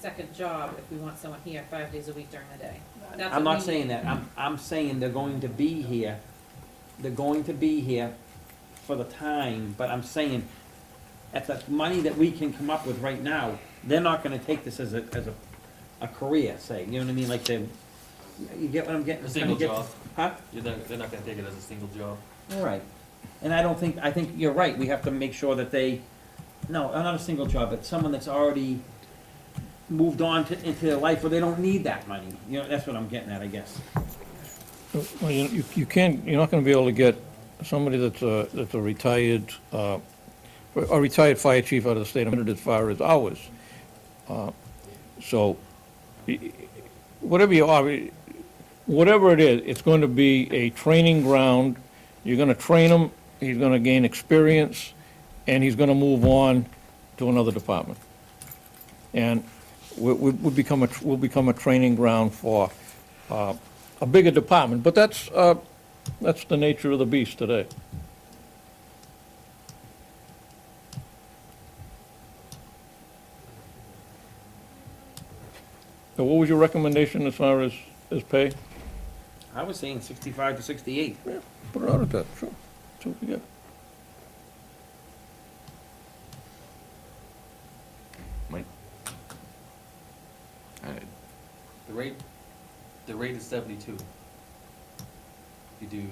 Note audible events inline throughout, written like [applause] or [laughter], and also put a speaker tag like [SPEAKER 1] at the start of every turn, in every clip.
[SPEAKER 1] second job if we want someone here five days a week during the day. That's
[SPEAKER 2] I'm
[SPEAKER 1] what
[SPEAKER 2] not
[SPEAKER 1] we
[SPEAKER 2] saying
[SPEAKER 1] need.
[SPEAKER 2] that, I'm, I'm saying they're going to be here, they're going to be here for the time, but I'm saying, at the money that we can come up with right now, they're not gonna take this as a, as a, a career, say, you know what I mean, like they, you get what I'm getting?
[SPEAKER 3] A single
[SPEAKER 2] trying to get-
[SPEAKER 3] job.
[SPEAKER 2] Huh?
[SPEAKER 3] You're not, they're not gonna take it as a single job.
[SPEAKER 2] All right, and I don't think, I think you're right, we have to make sure that they, no, not a single job, but someone that's already moved on to, into their life where they don't need that money, you know, that's what I'm getting at, I guess.
[SPEAKER 4] Well, you, you- you can't, you're not gonna be able to get somebody that's a, that's a retired, uh, a retired fire chief out of the state of Maine as far as hours. Uh, So, y- y- whatever you are, whatever it is, it's going to be a training ground. You're gonna train him, he's gonna gain experience, and he's gonna move on to another department. And we, we we become a, will become a training ground for, uh, a bigger department, but that's, uh, that's the nature of the beast today. So what was your recommendation as far as, as pay?
[SPEAKER 2] I was saying sixty-five to sixty-eight.
[SPEAKER 4] Put it out at that, sure. So, yeah.
[SPEAKER 3] The rate, the rate is seventy-two. You do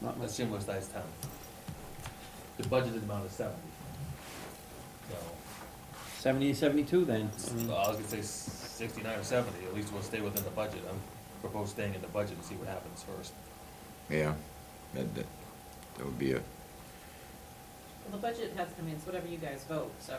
[SPEAKER 2] Not
[SPEAKER 3] a
[SPEAKER 2] much.
[SPEAKER 3] similar sized town. The budgeted amount is seventy. So,
[SPEAKER 2] Seventy to seventy-two then. I mean,
[SPEAKER 3] well, I was gonna say sixty-nine or seventy, at least we'll stay within the budget. I'm propose staying in the budget and see what happens first.
[SPEAKER 5] Yeah, that, that, that would be a,
[SPEAKER 1] Well, the budget has, I mean, it's whatever you guys vote, so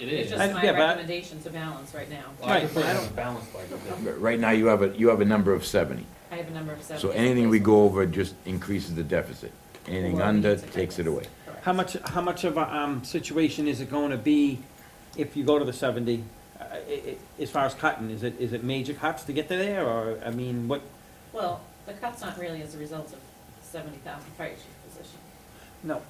[SPEAKER 3] It
[SPEAKER 1] it's
[SPEAKER 3] is.
[SPEAKER 1] just my
[SPEAKER 2] yeah, but I-
[SPEAKER 1] recommendation to balance right now.
[SPEAKER 3] Well, I
[SPEAKER 2] Right,
[SPEAKER 3] prefer
[SPEAKER 2] I
[SPEAKER 3] it
[SPEAKER 2] don't-
[SPEAKER 3] as a balanced budget. than-
[SPEAKER 5] but right now you have a, you have a number of seventy.
[SPEAKER 1] I have a number of seven.
[SPEAKER 5] So anything we go over just increases the deficit. Anything
[SPEAKER 1] Or
[SPEAKER 5] under
[SPEAKER 1] needs it, I
[SPEAKER 5] takes it
[SPEAKER 1] guess.
[SPEAKER 5] away.
[SPEAKER 1] Correct.
[SPEAKER 2] How much, how much of a, um, situation is it gonna be if you go to the seventy? Uh, i i as far as cutting, is it, is it major cuts to get to there, or, I mean, what,
[SPEAKER 1] Well, the cut's not really as a result of seventy thousand fire chief position.
[SPEAKER 2] no,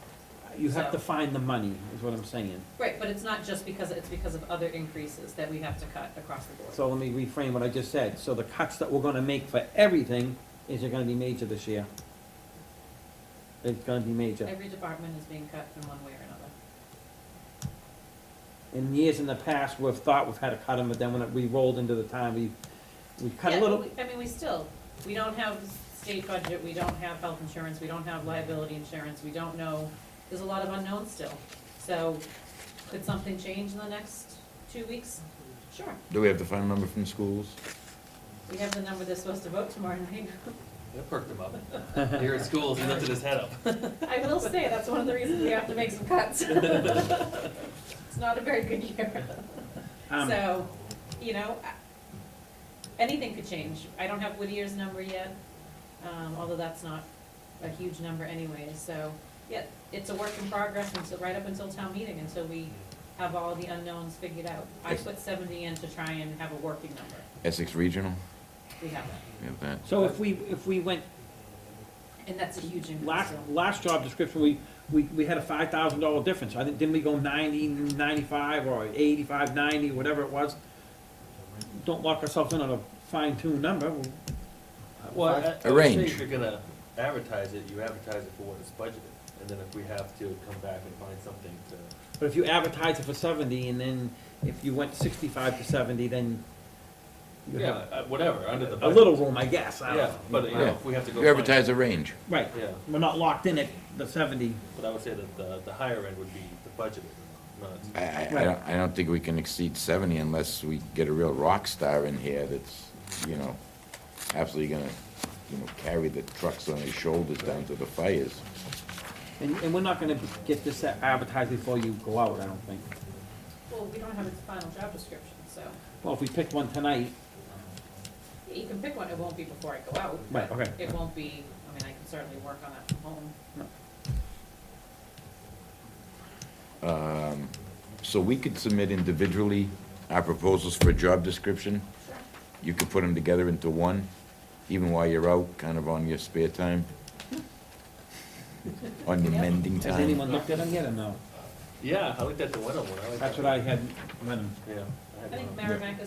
[SPEAKER 2] you have to
[SPEAKER 1] So-
[SPEAKER 2] find the money, is what I'm saying.
[SPEAKER 1] Right, but it's not just because, it's because of other increases that we have to cut across the board.
[SPEAKER 2] So let me reframe what I just said, so the cuts that we're gonna make for everything, is it gonna be major this year? It's gonna be major.
[SPEAKER 1] Every department is being cut in one way or another.
[SPEAKER 2] In years in the past, we've thought we've had to cut them, but then when it- we rolled into the time, we, we cut
[SPEAKER 1] Yeah,
[SPEAKER 2] a
[SPEAKER 1] but
[SPEAKER 2] little,
[SPEAKER 1] we- I mean, we still, we don't have state budget, we don't have health insurance, we don't have liability insurance, we don't know, there's a lot of unknowns still. So could something change in the next two weeks? Sure.
[SPEAKER 5] Do we have the final number from schools?
[SPEAKER 1] We have the number they're supposed to vote tomorrow [laughs] night.
[SPEAKER 3] That perked him up. [laughs] Here at school, he lifted his head up.
[SPEAKER 1] I will say, that's one of the reasons we have to make some [laughs] cuts. It's not a very good year.
[SPEAKER 2] um,
[SPEAKER 1] So, you know, I- anything could change. I don't have Whittier's number yet, um, although that's not a huge number anyway, so, yeah, it's a work in progress until, right up until town meeting, until we have all the unknowns figured out. I
[SPEAKER 5] Yes.
[SPEAKER 1] put seventy in to try and have a working number.
[SPEAKER 5] Essex Regional,
[SPEAKER 1] We have that,
[SPEAKER 5] we have that.
[SPEAKER 2] So if we, if we went,
[SPEAKER 1] and that's a huge increase.
[SPEAKER 2] last,
[SPEAKER 1] so-
[SPEAKER 2] last job description, we, we, we had a five thousand dollar difference, I think, didn't we go ninety, ninety-five, or eighty-five, ninety, whatever it was? Don't lock ourselves in on a fine-tuned number, Well,
[SPEAKER 3] Well, I- I would say
[SPEAKER 5] Arrange.
[SPEAKER 3] If you're gonna advertise it, you advertise it for what it's budgeted, and then if we have to come back and find something to,
[SPEAKER 2] but if you advertise it for seventy, and then if you went sixty-five to seventy, then you
[SPEAKER 3] yeah,
[SPEAKER 2] have
[SPEAKER 3] uh, whatever, under the
[SPEAKER 2] a
[SPEAKER 3] budget.
[SPEAKER 2] little room, I guess, I don't
[SPEAKER 3] Yeah,
[SPEAKER 2] know.
[SPEAKER 3] but, you know, if we have to go.
[SPEAKER 5] You
[SPEAKER 3] find-
[SPEAKER 5] advertise a range.
[SPEAKER 2] Right,
[SPEAKER 3] Yeah,
[SPEAKER 2] we're not locked in at the seventy,
[SPEAKER 3] but I would say that the, the higher end would be the budgeted, not.
[SPEAKER 5] I, I, I don't, I don't think we can exceed seventy unless we get a real rock star in here that's, you know, absolutely gonna, you know, carry the trucks on his shoulders down to the fires.
[SPEAKER 2] and, and we're not gonna get this advertised before you go out, I don't think.
[SPEAKER 1] Well, we don't have its final job description, so
[SPEAKER 2] Well, if we picked one tonight,
[SPEAKER 1] you can pick one, it won't be before I go out.
[SPEAKER 2] Right,
[SPEAKER 1] but
[SPEAKER 2] okay.
[SPEAKER 1] It won't be, I mean, I can certainly work on that from home.
[SPEAKER 5] Um, So we could submit individually our proposals for a job description. You could put them together into one, even while you're out, kind of on your spare
[SPEAKER 2] [laughs]
[SPEAKER 5] time. On your
[SPEAKER 1] Yeah.
[SPEAKER 5] mending
[SPEAKER 2] has
[SPEAKER 5] time.
[SPEAKER 2] anyone looked at them yet or no?
[SPEAKER 3] Yeah, I looked at the one on one, I like that.
[SPEAKER 2] That's what I had, when
[SPEAKER 3] Yeah. I had
[SPEAKER 1] I think
[SPEAKER 3] one.
[SPEAKER 1] Merrimack